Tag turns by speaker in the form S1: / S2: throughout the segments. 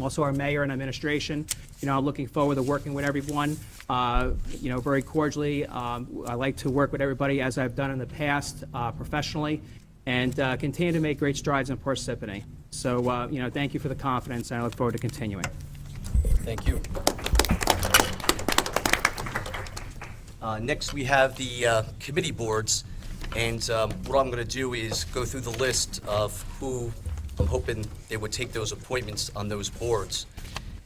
S1: also our mayor and administration. You know, I'm looking forward to working with everyone, uh, you know, very cordially. Um, I like to work with everybody as I've done in the past uh, professionally and uh, continue to make great strides in Parsippany. So, uh, you know, thank you for the confidence, and I look forward to continuing.
S2: Thank you. Uh, Next, we have the uh, committee boards, and um, what I'm going to do is go through the list of who I'm hoping they would take those appointments on those boards.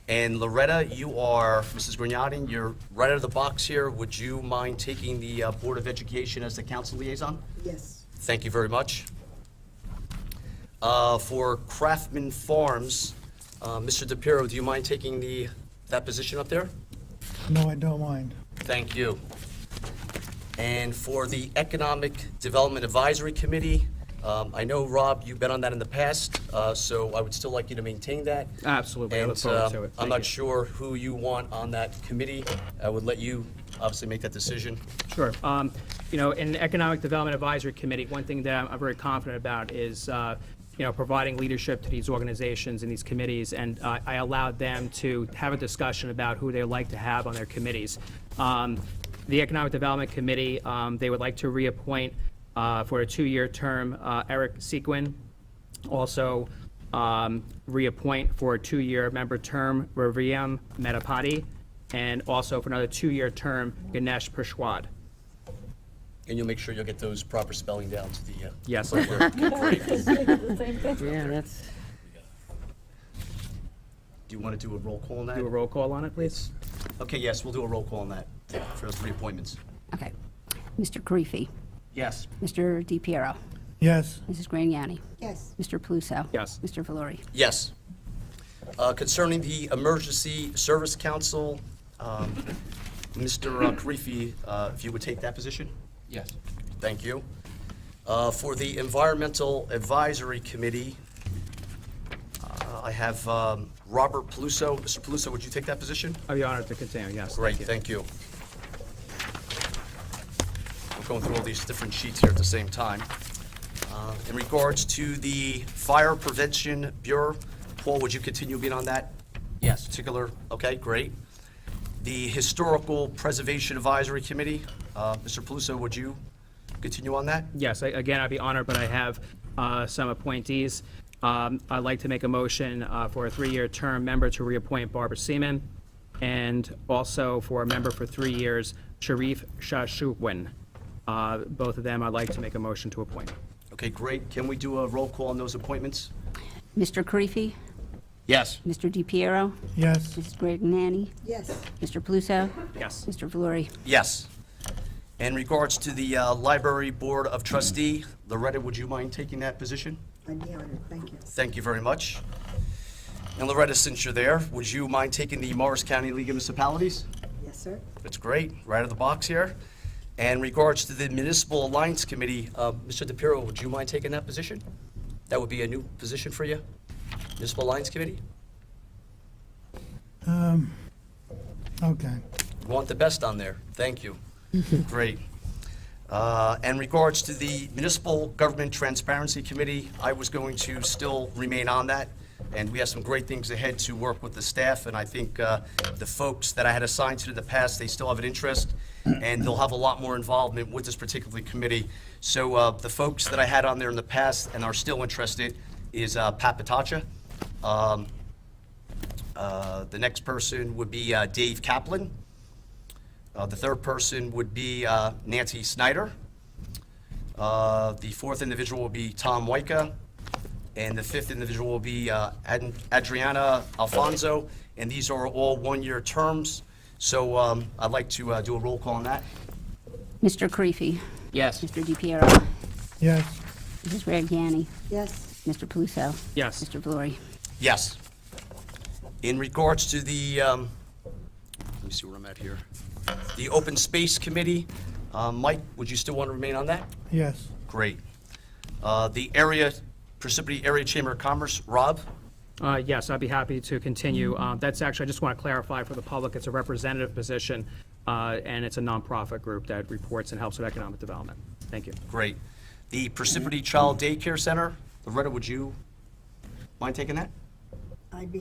S2: And Loretta, you are, Mrs. Grignani, you're right out of the box here. Would you mind taking the uh, Board of Education as the council liaison?
S3: Yes.
S2: Thank you very much. Uh, For Craftman Farms, uh, Mr. DePiero, do you mind taking the, that position up there?
S4: No, I don't mind.
S2: Thank you. And for the Economic Development Advisory Committee, um, I know, Rob, you've been on that in the past, uh, so I would still like you to maintain that.
S1: Absolutely. Ah, I look
S2: And,
S1: forward
S2: uh,
S1: to it.
S2: I'm
S1: Thank
S2: not
S1: you.
S2: sure who you want on that committee. I would let you obviously make that decision.
S1: Sure. Um, You know, in the Economic Development Advisory Committee, one thing that I'm- I'm very confident about is, uh, you know, providing leadership to these organizations and these committees, and uh, I allowed them to have a discussion about who they'd like to have on their committees. Um, The Economic Development Committee, um, they would like to reappoint uh, for a two-year term uh, Eric Sequin, also um, reappoint for a two-year member term Raviam Metapati, and also for another two-year term Ganesh Prashwad.
S2: And you'll make sure you'll get those proper spelling down to the. uh,
S1: Yes.
S2: right where it conforms. Do
S5: Yeah, that's,
S2: you want to do a roll call on that?
S1: Do a roll call on it, please.
S2: Okay, yes, we'll do a roll call on that for those three appointments.
S6: Okay. Mr. Karifi.
S2: Yes.
S6: Mr. DePiero.
S4: Yes,
S6: Mrs. Graniani.
S3: Yes.
S6: Mr. Paluso.
S1: Yes.
S6: Mr. Valori.
S2: Yes. Uh, Concerning the Emergency Service Council, um, Mr. Karifi, uh, if you would take that position?
S7: Yes.
S2: Thank you. Uh, For the Environmental Advisory Committee, uh, I have um, Robert Paluso. Mr. Paluso, would you take that position?
S1: I'd be honored to continue, yes.
S2: Great, thank you. We're going through all these different sheets here at the same time. Uh, In regards to the Fire Prevention Bureau, Paul, would you continue being on that
S7: Yes.
S2: particular? Okay, great. The Historical Preservation Advisory Committee, uh, Mr. Paluso, would you continue on that?
S1: Yes, I- again, I'd be honored, but I have uh, some appointees. Um, I'd like to make a motion uh, for a three-year term member to reappoint Barbara Seaman, and also for a member for three years, Sharif Shashuwin. Uh, Both of them, I'd like to make a motion to appoint.
S2: Okay, great. Can we do a roll call on those appointments?
S6: Mr. Karifi.
S7: Yes.
S6: Mr. DePiero.
S4: yes,
S6: Mrs. Graniani.
S3: Yes.
S6: Mr. Paluso.
S1: Yes.
S6: Mr. Valori.
S2: Yes. In regards to the uh, Library Board of Trustee, Loretta, would you mind taking that position?
S3: I'd be honored. Thank you.
S2: Thank you very much. And Loretta, since you're there, would you mind taking the Morris County League of Municipalities?
S3: Yes, sir.
S2: That's great, right out of the box here. And regards to the Municipal Alliance Committee, uh, Mr. DePiero, would you mind taking that position? That would be a new position for you, Municipal Alliance Committee?
S4: um, okay.
S2: You Want the best on there, thank you. Great. Uh, And regards to the Municipal Government Transparency Committee, I was going to still remain on that, and we have some great things ahead to work with the staff, and I think uh, the folks that I had assigned to in the past, they still have an interest, and they'll have a lot more involvement with this particular committee. So uh, the folks that I had on there in the past and are still interested is uh, Pat Patacha. Um, uh, The next person would be uh, Dave Kaplan. Uh, The third person would be uh, Nancy Snyder. Uh, The fourth individual will be Tom Waika. And the fifth individual will be uh, Ad- Adriana Alfonso. And these are all one-year terms. So um, I'd like to uh, do a roll call on that.
S6: Mr. Karifi.
S7: Yes.
S6: Mr. DePiero.
S4: Yes,
S6: Mrs. Graniani.
S3: Yes.
S6: Mr. Paluso.
S1: Yes.
S6: Mr. Valori.
S2: Yes. In regards to the, um, let me see where I'm at here. The Open Space Committee, uh, Mike, would you still want to remain on that?
S4: yes,
S2: Great. Uh, The area, Parsippany Area Chamber of Commerce, Rob?
S1: Uh, Yes, I'd be happy to continue. Uh, That's actually, I just want to clarify for the public, it's a representative position, uh, and it's a nonprofit group that reports and helps with economic development. Thank you.
S2: Great. The Parsippany Child Daycare Center, Loretta, would you mind taking that?
S3: I'd be